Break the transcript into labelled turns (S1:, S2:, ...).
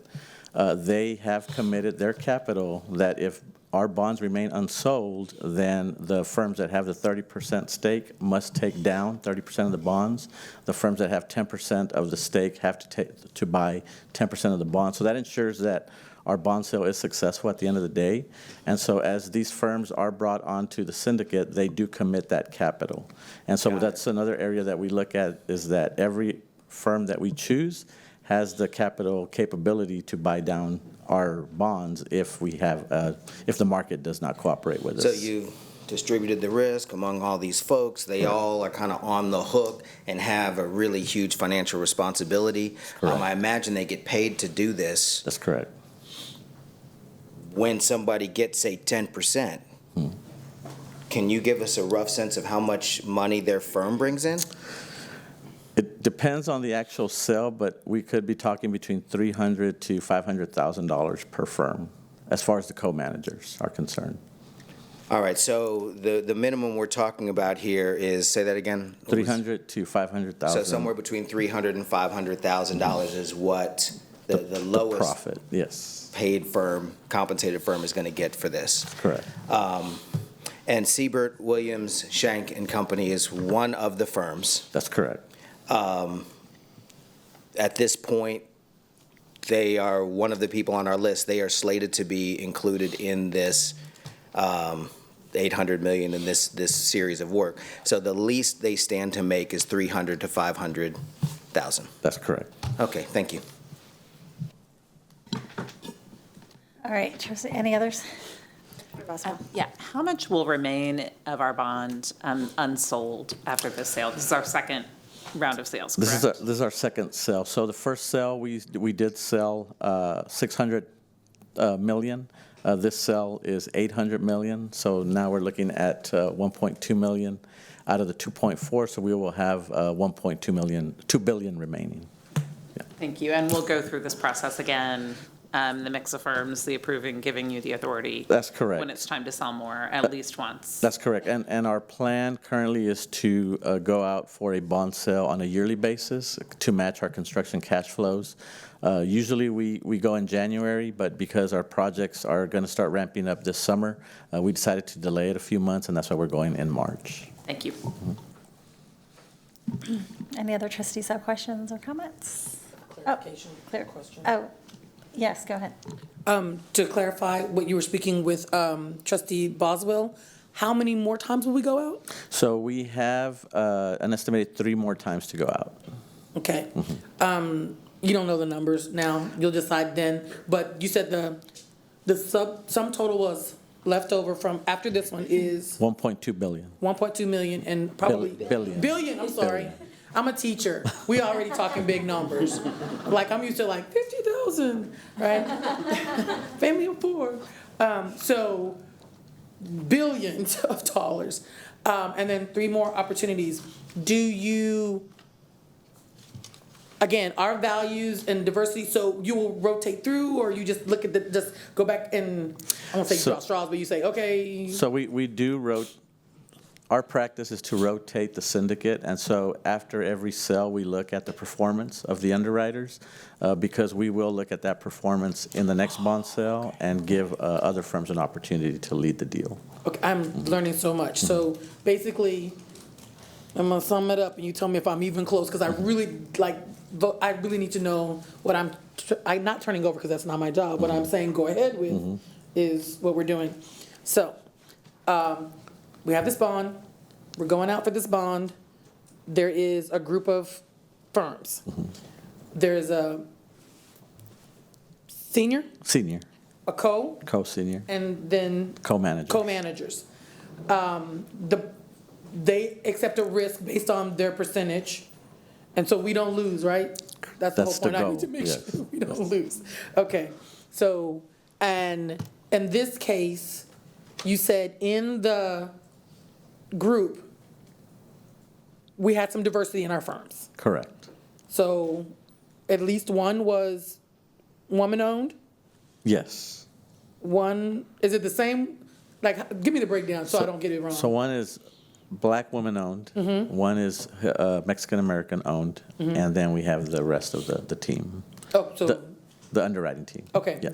S1: uh, they have committed their capital that if our bonds remain unsold, then the firms that have the 30% stake must take down 30% of the bonds. The firms that have 10% of the stake have to take, to buy 10% of the bonds. So that ensures that our bond sale is successful at the end of the day. And so as these firms are brought onto the syndicate, they do commit that capital. And so that's another area that we look at, is that every firm that we choose has the capital capability to buy down our bonds if we have, uh, if the market does not cooperate with us.
S2: So you've distributed the risk among all these folks. They all are kind of on the hook and have a really huge financial responsibility. Um, I imagine they get paid to do this.
S1: That's correct.
S2: When somebody gets, say, ten percent,
S1: Hmm.
S2: can you give us a rough sense of how much money their firm brings in?
S1: It depends on the actual sale, but we could be talking between three hundred to five hundred thousand dollars per firm, as far as the co-managers are concerned.
S2: All right, so the, the minimum we're talking about here is, say that again?
S1: Three hundred to five hundred
S2: So
S1: thousand. Hmm.
S2: somewhere between three hundred and five hundred thousand dollars is what the, the lowest
S1: Profit, yes,
S2: paid firm, compensated firm is going to get for this.
S1: correct.
S2: And Siebert, Williams, Shank and Company is one of the firms.
S1: That's correct.
S2: At this point, they are one of the people on our list. They are slated to be included in this um, 800 million in this, this series of work. So the least they stand to make is 300 to 500,000.
S1: That's correct.
S2: Okay, thank you.
S3: All right, trustee, any others? Boswell.
S4: Um, Yeah, how much will remain of our bond um, unsold after this sale? This is our second round of sales,
S1: This is, our-
S4: correct?
S1: this is our second sale. So the first sale, we, we did sell uh, 600 uh, million. Uh, This sale is 800 million, so now we're looking at uh, 1.2 million out of the 2.4, so we will have uh, 1.2 million, 2 billion remaining.
S4: Thank you, and we'll go through this process again, um, the mix of firms, the approving, giving you the authority.
S1: That's correct.
S4: When it's time to sell more, at least once.
S1: That's correct. And, and our plan currently is to uh, go out for a bond sale on a yearly basis to match our construction cash flows. Uh, Usually, we, we go in January, but because our projects are going to start ramping up this summer, uh, we decided to delay it a few months, and that's why we're going in March.
S4: Thank you.
S3: Any other trustees have questions or comments?
S5: Clarification
S3: Clear.
S5: question.
S3: Oh, yes, go ahead.
S5: To clarify what you were speaking with um, trustee Boswell, how many more times will we go out?
S1: So we have uh, an estimated three more times to go out.
S5: Okay. Um, You don't know the numbers now, you'll decide then, but you said the, the sub, sum total was left over from after this one is
S1: 1.2 billion.
S5: 1.2 million and probably.
S1: billion.
S5: Billion, I'm sorry.
S1: Billion.
S5: I'm a teacher. We already talking big numbers. Like, I'm used to like 50,000, right? Family of four. Um, so, billions of dollars. Um, and then three more opportunities. Do you, again, our values and diversity, so you will rotate through or you just look at the, just go back and, I won't say
S1: So-
S5: draw straws, but you say, okay.
S1: So we, we do rot, our practice is to rotate the syndicate, and so after every sale, we look at the performance of the underwriters, uh, because we will look at that performance in the next bond sale and give uh, other firms an opportunity to lead the deal.
S5: Okay, I'm learning so much. So basically, I'm gonna sum it up, and you tell me if I'm even close, because I really like, vo- I really need to know what I'm. tr- I'm not turning over because that's not my job. What I'm saying, go ahead with, is what we're doing. So, um, we have this bond. We're going out for this bond. There is a group of firms. There's a senior,
S1: Senior,
S5: a co,
S1: co-senior,
S5: and then
S1: co-manager.
S5: co-managers. Um, the, they accept a risk based on their percentage, and so we don't lose, right? That's the whole
S1: That's the
S5: point, I need to
S1: goal,
S5: make
S1: yes.
S5: sure we don't lose. Okay, so, and in this case, you said in the group, we had some diversity in our firms.
S1: Correct.
S5: So at least one was woman-owned,
S1: Yes.
S5: one, is it the same? Like, give me the breakdown so I don't get it wrong. Mm-hmm.
S1: So one is black woman-owned, one is uh, Mexican-American-owned, and then we have the rest of the, the team.
S5: Oh, so
S1: The- The underwriting team.
S5: Okay,
S1: Yeah.